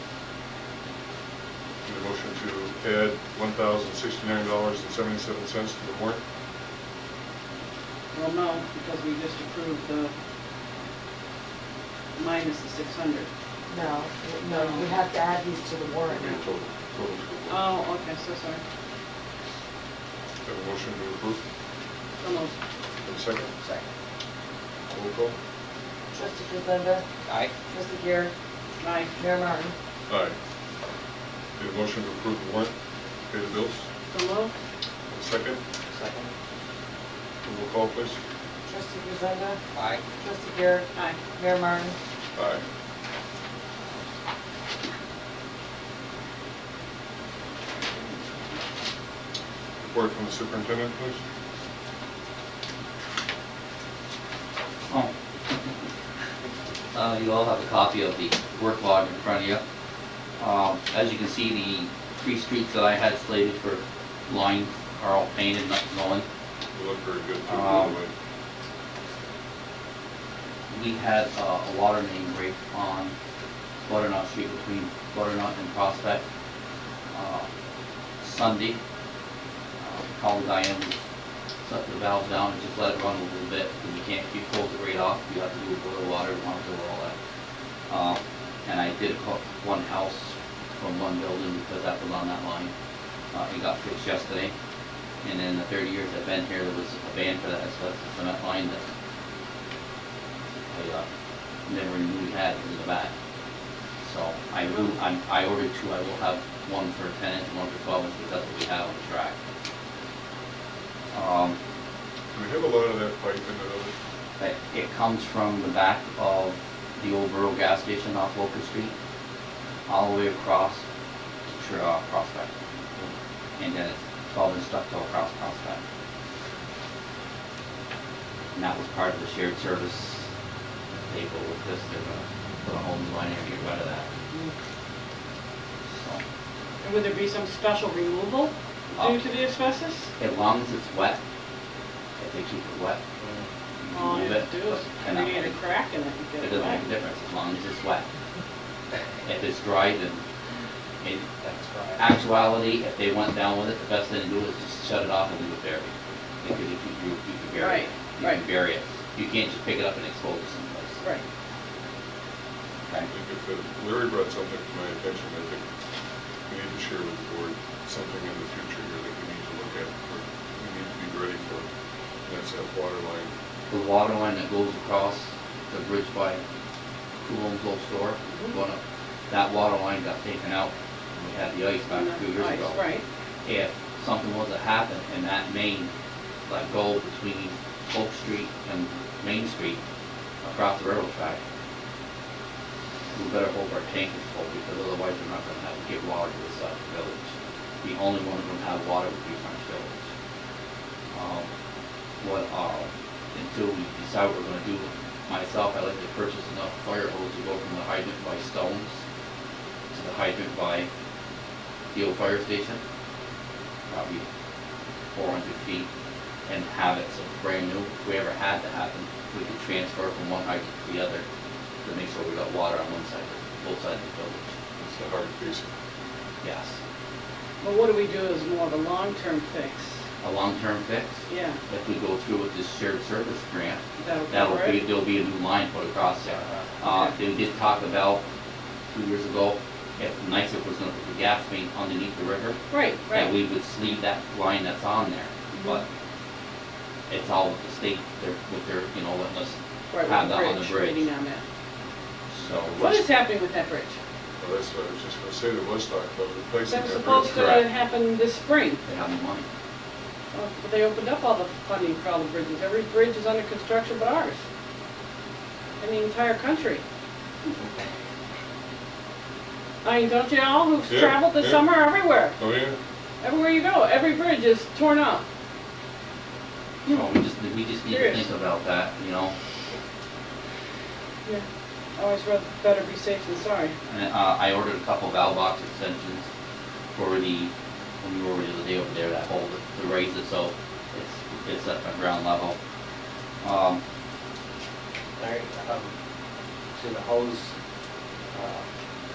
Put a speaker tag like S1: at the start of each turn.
S1: motion to add one thousand sixty-nine dollars and seventy-seven cents to the warrant?
S2: Well, no, because we just approved the minus the six hundred.
S3: No, no, you have to add these to the warrant.
S1: Okay, total, total to the warrant.
S2: Oh, okay, so sorry.
S1: Have a motion to approve,
S2: So moved.
S1: and second,
S2: Sorry.
S1: roll call?
S3: Trustee Grisenda,
S4: Aye.
S3: trustee Garrett,
S2: Aye.
S3: Mayor Martin.
S1: Aye. Need a motion to approve the warrant, pay the bills,
S2: So moved.
S1: and second,
S4: Second.
S1: roll call, please.
S3: Trustee Grisenda,
S4: Aye.
S3: trustee Garrett,
S2: Aye.
S3: Mayor Martin.
S1: Aye. Report from the superintendent, please.
S5: Oh. Uh, You all have a copy of the work log in front of you. Um, As you can see, the three streets that I had slated for line are all painted, nothing going.
S1: You look very good, too, by the
S5: Um,
S1: way.
S5: We had uh, a water main break on Butternut Street between Butternut and Prospect uh, Sunday. Uh, Called Diane, shut the valve down and just let it run a little bit, because you can't, you close it right off, you have to do boil water, you want to do all that. Uh, And I did hook one house from one building because that was on that line. Uh, It got fixed yesterday. And in the 30 years I've been here, there was a ban for that asbestos cement line that I uh, never knew we had in the back. So I will, I I ordered two, I will have one for 10 inch, one for 12 inch, because that's what we have on the track. Um,
S1: Do we have a lot of that pipe in the village?
S5: that it comes from the back of the old rural gas station off Locust Street, all the way across to Tr- uh, Prospect. And then it's twelve inch ductile across Prospect. And that was part of the shared service table with this, uh, they're gonna put a whole new line and get rid of that, so.
S2: And would there be some special removal due to the asbestos?
S5: As long as it's wet, if they keep it wet, you
S2: Mm-hmm. All
S5: can
S2: you
S5: move
S2: have to Oh, do is
S5: and Ah. that
S2: create a
S5: way-
S2: crack in it and
S5: It
S2: get it
S5: doesn't
S2: back.
S5: make a difference as long as it's wet. If it's dry, then in
S4: That's right.
S5: actuality, if they went down with it, the best thing to do is just shut it off and leave it buried. Because you can, you you can bury
S2: Right,
S5: it. You can
S2: right.
S5: bury it. You can't just pick it up and expose it someplace.
S2: Right.
S5: Okay?
S1: I think if uh, Larry brought something to my attention, I think we need to share with the board something in the future here that we need to look at, or we need to be ready for. And that's that water line.
S5: The water line that goes across the bridge by Coolum's old store,
S2: Mm-hmm.
S5: going up, that water line got taken out when we had the ice back a few years
S2: Nice,
S5: ago.
S2: Right.
S5: if something was to happen and that main, like go between Oak Street and Main Street across the railroad track, we better hold our tankers full because otherwise we're not gonna have to get water to the side of the village. The only one who's gonna have water would be French Village. Um, What, uh, until we decide what we're gonna do, myself, I like to purchase enough fire hose to go from the hydrant by Stones to the hydrant by the old fire station probably four hundred feet and have it so it's brand new. If we ever had that happen, we could transfer from one hydrant to the other to make sure we got water on one side, both sides of the village.
S1: It's the hard piece.
S5: Yes.
S2: But what do we do is more of a long-term fix.
S5: A long-term fix,
S2: Yeah,
S5: if we go through with this shared service grant,
S2: that'll
S5: that'll
S2: cover
S5: be,
S2: it.
S5: there'll be a new line put across there.
S2: Uh-huh.
S5: Uh, they did talk about two years ago, if NICEF was gonna put the gas main underneath the river,
S2: Right,
S5: that
S2: right.
S5: we would sleeve that line that's on there,
S2: Mm-hmm.
S5: but it's all with the state, they're, with their, you know, letting us,
S2: Right,
S5: have
S2: with
S5: that on the bridge.
S2: Waiting on that.
S5: so.
S2: What is happening with that bridge?
S1: Well, that's what I was just gonna say, there was talk about replacing
S2: That
S1: that.
S2: was supposed to
S5: correct.
S2: happen this spring.
S5: They have the money.
S2: Well, They opened up all the funding for all the bridges. Every bridge is under construction but ours. In the entire country. I mean, don't you all who've
S1: Yeah,
S2: traveled this
S1: yeah.
S2: summer everywhere?
S1: Oh, yeah?
S2: Everywhere you go, every bridge is torn up.
S5: So we just, we just need to
S2: Serious.
S5: think about that, you know,
S2: Yeah. Always rather, better be safe than sorry.
S5: and, uh, I ordered a couple valve box extensions for the, when we were the other day over there, that hole, to raise it, so it's, it's at my ground level. Um,
S4: Larry, um, to the hose, uh,